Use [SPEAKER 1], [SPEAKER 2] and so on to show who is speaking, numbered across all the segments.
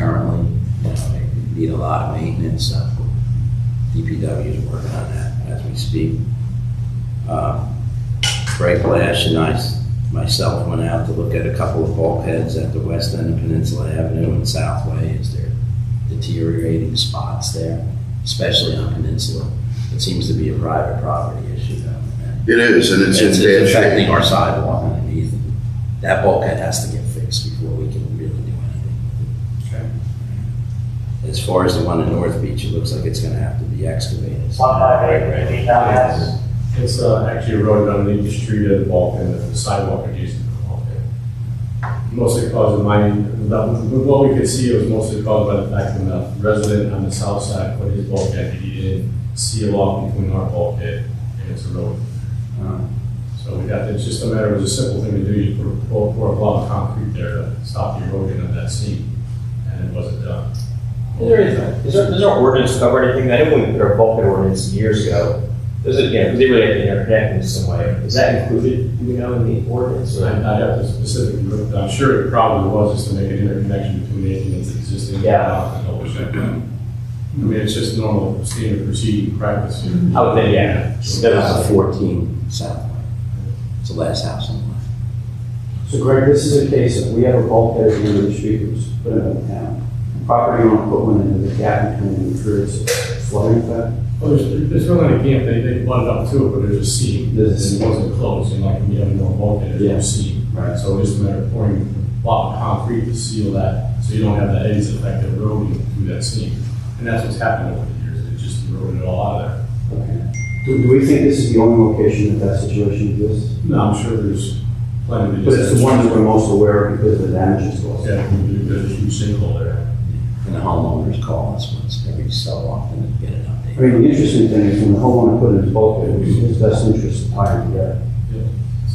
[SPEAKER 1] uh, need a lot of maintenance. Uh, DPW is working on that as we speak. Uh, Frank Lash and I, myself, went out to look at a couple of bulkheads at the west end of Peninsula Avenue and Southway as they're deteriorating spots there, especially on Peninsula. It seems to be a private property issue though.
[SPEAKER 2] It is, and it's in
[SPEAKER 1] It's
[SPEAKER 2] bad
[SPEAKER 1] it's affecting
[SPEAKER 2] shape.
[SPEAKER 1] our sidewalk underneath. That bulkhead has to get fixed before we can really do anything.
[SPEAKER 3] Okay.
[SPEAKER 1] As far as the one in North Beach, it looks like it's gonna have to be excavated.
[SPEAKER 4] One five eight,
[SPEAKER 3] Right, right.
[SPEAKER 4] fifteen thousand, that's-
[SPEAKER 3] It's uh, actually eroded on the street at the bulkhead, and the sidewalk adjacent to the bulkhead. Mostly caused by, but what we could see it was mostly caused by the fact that the resident on the south side put his bulkhead, he didn't seal off between our bulkhead and its road.
[SPEAKER 1] Uh,
[SPEAKER 3] So we got, it's just a matter, it was a simple thing to do, you put, pour pour a block of concrete there to stop the erosion of that seam, and it wasn't done.
[SPEAKER 5] Is there, is there, does our ordinance cover anything? I know when we put our bulkhead ordinance years ago, there's a, you know, they really had to interconnect in some way. Is that included, do we know, in the ordinance?
[SPEAKER 3] So I, I have to specifically look, I'm sure it probably was just to make an interconnection between anything that's existing. and
[SPEAKER 5] Yeah.
[SPEAKER 3] the ocean. I mean, it's just normal standard proceeding practice here.
[SPEAKER 6] Mm-hmm.
[SPEAKER 5] I would think, yeah.
[SPEAKER 1] That was the fourteen Southway. It's the last house on the left.
[SPEAKER 6] So Greg, this is a case of, we have a bulkhead at the end of the street, which was put in the town. Property owner put one into the gap between the crews, flooding effect.
[SPEAKER 3] Well, there's, there's really a camp, they, they butted up to it, but there's a seam.
[SPEAKER 6] There's a
[SPEAKER 3] And It
[SPEAKER 6] seam.
[SPEAKER 3] wasn't closed, and like, when you have no bulkhead,
[SPEAKER 6] Yeah.
[SPEAKER 3] there's a seam.
[SPEAKER 6] Right.
[SPEAKER 3] So it's just a matter of pouring a block of concrete to seal that, so you don't have that eddies effect of eroding through that seam. And that's what's happened over the years, it just eroded it all out of there.
[SPEAKER 6] Okay. Do, do we think this is the only location that that situation exists?
[SPEAKER 3] No, I'm sure there's plenty of.
[SPEAKER 6] But it's the one that we're most aware of because of the damages caused.
[SPEAKER 3] Yeah, there's a huge sinkhole there.
[SPEAKER 1] And the homeowners call us once every so often and get an update.
[SPEAKER 6] I mean, the interesting thing is when the homeowner put in his bulkhead, it was in his best interest to tie it together.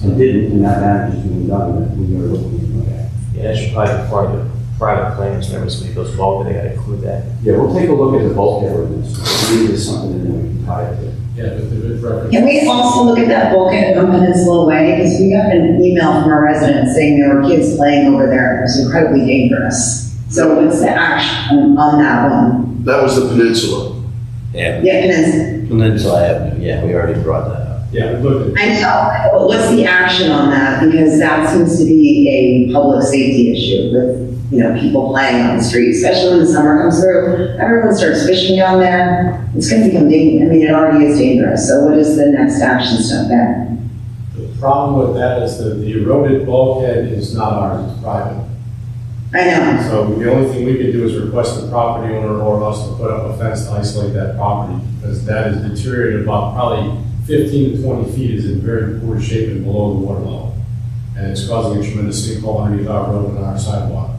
[SPEAKER 6] And didn't, and that damage is being done, that we are looking at.
[SPEAKER 5] Yeah, that should probably be part of the private plans, whenever somebody goes bulkhead, they gotta include that.
[SPEAKER 6] Yeah, we'll take a look at the bulkhead ordinance, see if there's something in there we can tie it to.
[SPEAKER 3] Yeah, but the reference.
[SPEAKER 7] Can we also look at that bulkhead on Peninsula Way? Because we got an email from a resident saying there were kids playing over there. and It was incredibly dangerous. So what's the action on that one?
[SPEAKER 2] That was the peninsula.
[SPEAKER 1] Yeah,
[SPEAKER 7] Yeah, Peninsula.
[SPEAKER 1] Peninsula Avenue, yeah, we already brought that up.
[SPEAKER 3] Yeah, we looked at,
[SPEAKER 7] I know, but what's the action on that? Because that seems to be a public safety issue with, you know, people playing on the street, especially when the summer comes through. Everyone starts fishing down there. It's gonna become dangerous. I mean, it already is dangerous. So what is the next action step there?
[SPEAKER 3] the problem with that is that the eroded bulkhead is not ours, it's private.
[SPEAKER 7] I know.
[SPEAKER 3] So the only thing we could do is request the property owner or us to put up a fence to isolate that property, because that is deteriorated about probably fifteen to twenty feet is in very poor shape and below the water level. And it's causing a tremendous sinkhole underneath our road and our sidewalk.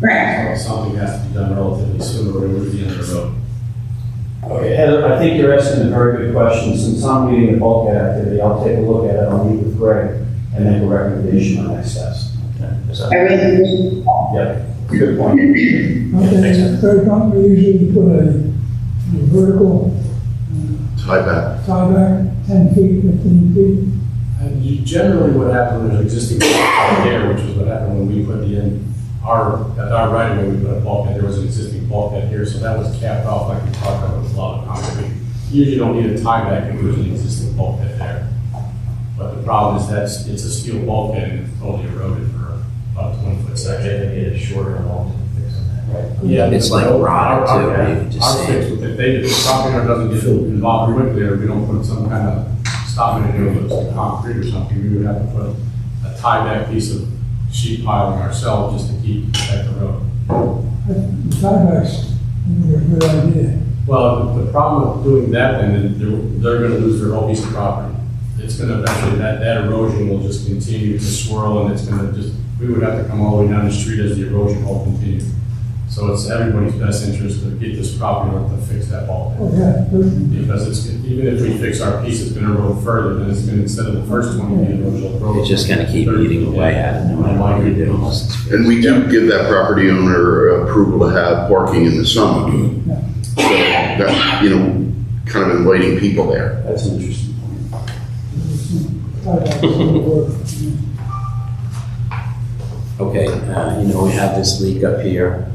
[SPEAKER 7] Right.
[SPEAKER 3] So Something has to be done relatively soon, or it would be on the road.
[SPEAKER 6] Okay, Heather, I think you're asking a very good question. Since I'm leading the bulkhead activity, I'll take a look at it, I'll meet with Greg and make a recommendation on next steps.
[SPEAKER 7] I really,
[SPEAKER 6] Good point.
[SPEAKER 5] Thanks,
[SPEAKER 8] Okay, third company usually put a a vertical
[SPEAKER 2] Tie back.
[SPEAKER 8] tieback, ten feet, fifteen feet.
[SPEAKER 3] And you generally what happened was existing bulkhead there, which is what happened when we put in our, at our right of way, we put a bulkhead, there was an existing bulkhead here, so that was capped off like we talked about with a lot of concrete. Usually you don't need a tieback if there's an existing bulkhead there. But the problem is that's, it's a steel bulkhead and it's totally eroded for about a twenty foot
[SPEAKER 5] So I
[SPEAKER 3] section.
[SPEAKER 5] think they need a shorter and longer fix on that.
[SPEAKER 3] Yeah,
[SPEAKER 1] It's like rotted too, you just
[SPEAKER 3] Our
[SPEAKER 1] see
[SPEAKER 3] fix, if they, if the property owner doesn't get involved quickly, or we don't put some kind of stopping it in with concrete or something, we would have to put a tieback piece of sheet piling ourselves just to keep, protect the road.
[SPEAKER 8] I think The tiebacks, I think, are a good idea.
[SPEAKER 3] Well, the the problem with doing that, then, is they're, they're gonna lose their whole piece of property. It's gonna eventually, that, that erosion will just continue to swirl, and it's gonna just, we would have to come all the way down the street as the erosion will continue. So it's everybody's best interest to get this property owner to fix that bulkhead.
[SPEAKER 8] Oh, yeah, good.
[SPEAKER 3] Because it's, even if we fix our piece, it's gonna roll further, then it's gonna, instead of the first twenty feet, it'll roll.
[SPEAKER 1] It's just gonna keep eating away at it, no matter what you do. unless it's fixed.
[SPEAKER 2] And we do give that property owner approval to have parking in the summer. So that, you know, kind of inviting people there.
[SPEAKER 6] That's an interesting point.
[SPEAKER 8] Tiebacks would work.
[SPEAKER 1] Okay, uh, you know, we have this leak up here.